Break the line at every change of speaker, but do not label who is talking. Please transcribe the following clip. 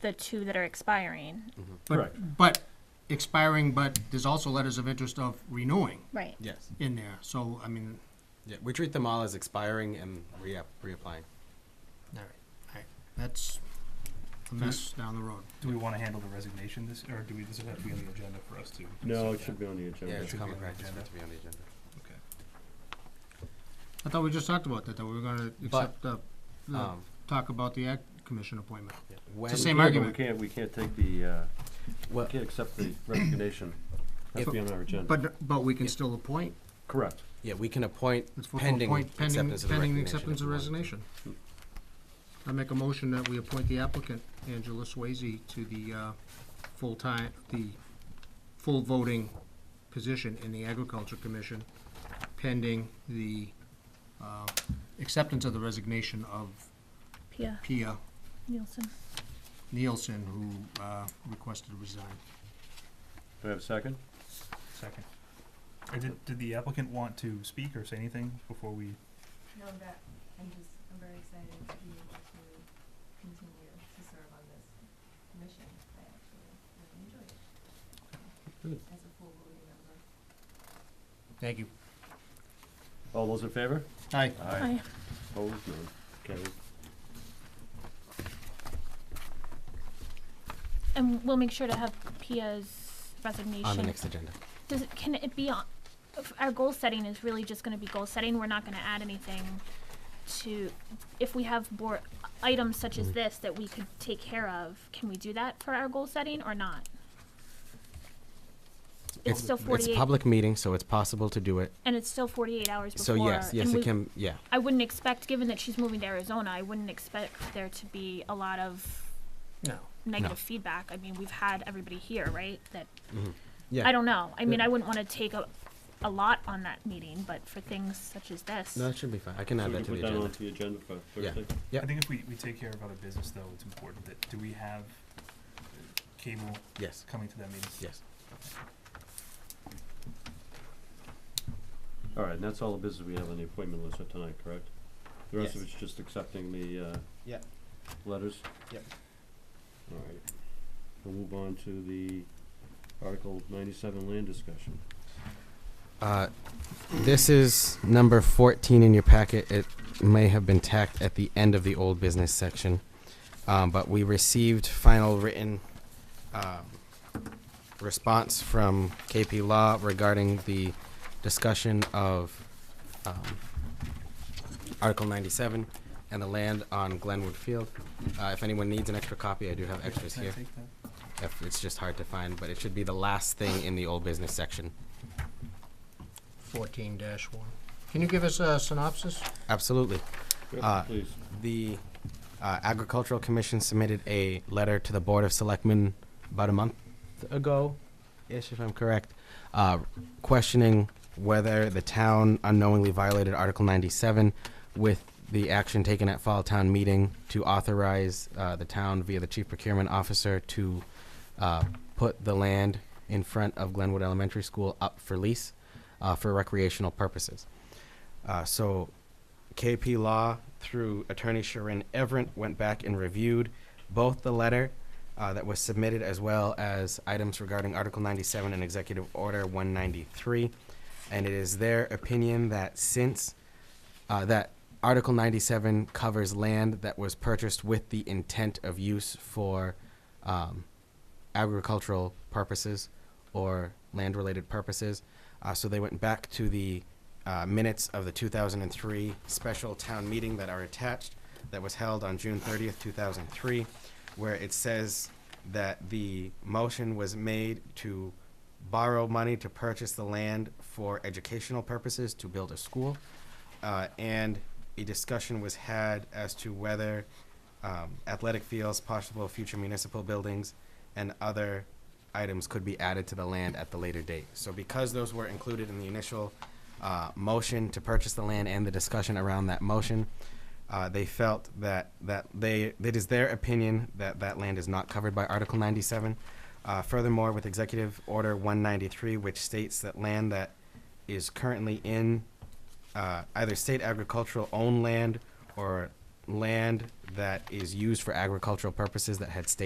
the two that are expiring.
Mm-hmm.
Correct.
But, but expiring, but there's also letters of interest of renewing
Right.
Yes.
in there, so, I mean,
Yeah, we treat them all as expiring and re- reapplying.
all right, all right, that's a mess down the road.
Do we want to handle the resignation this, or do we, does it have to be on the agenda for us to?
No, it should be on the
Yeah,
agenda.
it's
should be
common
on the
practice for it
agenda.
to be on the agenda.
I thought we just talked about that, that we were gonna accept the, the,
Um,
talk about the act commission appointment.
When,
Mm. the same
Yeah, but
argument.
We can't, we can't take the, uh, we
Well-
can't accept the resignation. Has to be on our agenda.
But, but we can still appoint,
Correct.
yeah, we can appoint
it's for,
pending
appoint, pending,
acceptance of the resignation.
pending acceptance
if
of
we wanted to.
resignation. I make a motion that we appoint the applicant, Angela Swayze, to the, uh, full-time, the full voting position in the Agriculture Commission pending the, uh, acceptance of the resignation of
Pia
Pia
Nielsen.
Nielsen, who, uh, requested to resign.
Do I have a second?
Second. Or did, did the applicant want to speak or say anything before we?
No, I'm not, I'm just, I'm very excited to be able to continue to serve on this commission. I actually really enjoy it.
Good.
As a full voting member.
Thank you.
All those in favor?
Aye.
Aye.
Opposed, none, carried.
And we'll make sure to have Pia's
On the
resignation.
next agenda.
Does, it- can it be on, if our goal setting is really just gonna be goal setting, we're not gonna add anything to, if we have board, items such
Mm-hmm.
as this that we could take care of, can we do that for our goal setting or not? It's still
It's a
forty-eight,
public meeting, so it's possible to do it.
and it's still forty-eight hours
So
before.
yes, yes,
and
it
we-
can, yeah.
I wouldn't expect, given that she's moving to Arizona, I wouldn't expect there to be a lot of
No.
negative feedback. I mean, we've had everybody here, right? That
mm-hmm. Yeah.
I don't know. I mean, I wouldn't want to take a, a lot on that meeting, but for things such as this,
No, that should be fine. I can
So
add
we
that
can
to the
put that
agenda.
onto the agenda for
Yeah.
Thursday?
Yep.
I think if we, we take care of other business though, it's important that, do we have uh, cable
Yes,
coming to that meeting?
yes.
All right, and that's all the business we have on the appointment list for tonight, correct? The rest of
Yes.
it's just accepting the, uh.
Yep.
Letters?
Yep.
All right. We'll move on to the Article ninety-seven land discussion.
Uh, This is number 14 in your packet. It may have been tacked at the end of the old business section. Um, But we received final written um, response from KP Law regarding the discussion of um, Article 97 and the land on Glenwood Field. Uh, If anyone needs an extra copy, I do have extras
Can I
here.
take that?
If It's just hard to find, but it should be the last thing in the old business section.
Fourteen one. Can you give us a synopsis?
Absolutely.
Yep,
Uh,
Please.
The uh, Agricultural Commission submitted a letter to the Board of Selectmen about a month ago-ish, if I'm correct, uh, questioning whether the town unknowingly violated Article 97 with the action taken at Fall Town Meeting to authorize uh, the town via the Chief Procurement Officer to uh, put the land in front of Glenwood Elementary School up for lease uh, for recreational purposes. Uh, So KP Law through Attorney Sharon Everett went back and reviewed both the letter uh, that was submitted as well as items regarding Article 97 and Executive Order 193. And it is their opinion that since uh, that Article 97 covers land that was purchased with the intent of use for um, agricultural purposes or land related purposes. Uh, so they went back to the uh, minutes of the 2003 special town meeting that are attached that was held on June 30th, 2003, where it says that the motion was made to borrow money to purchase the land for educational purposes to build a school. Uh, and a discussion was had as to whether um, athletic fields, possible future municipal buildings, and other items could be added to the land at the later date. So because those were included in the initial uh, motion to purchase the land and the discussion around that motion, uh, they felt that, that they, it is their opinion that that land is not covered by Article 97. Uh, Furthermore, with Executive Order 193, which states that land that is currently in uh, either state agricultural owned land or land that is used for agricultural purposes that had state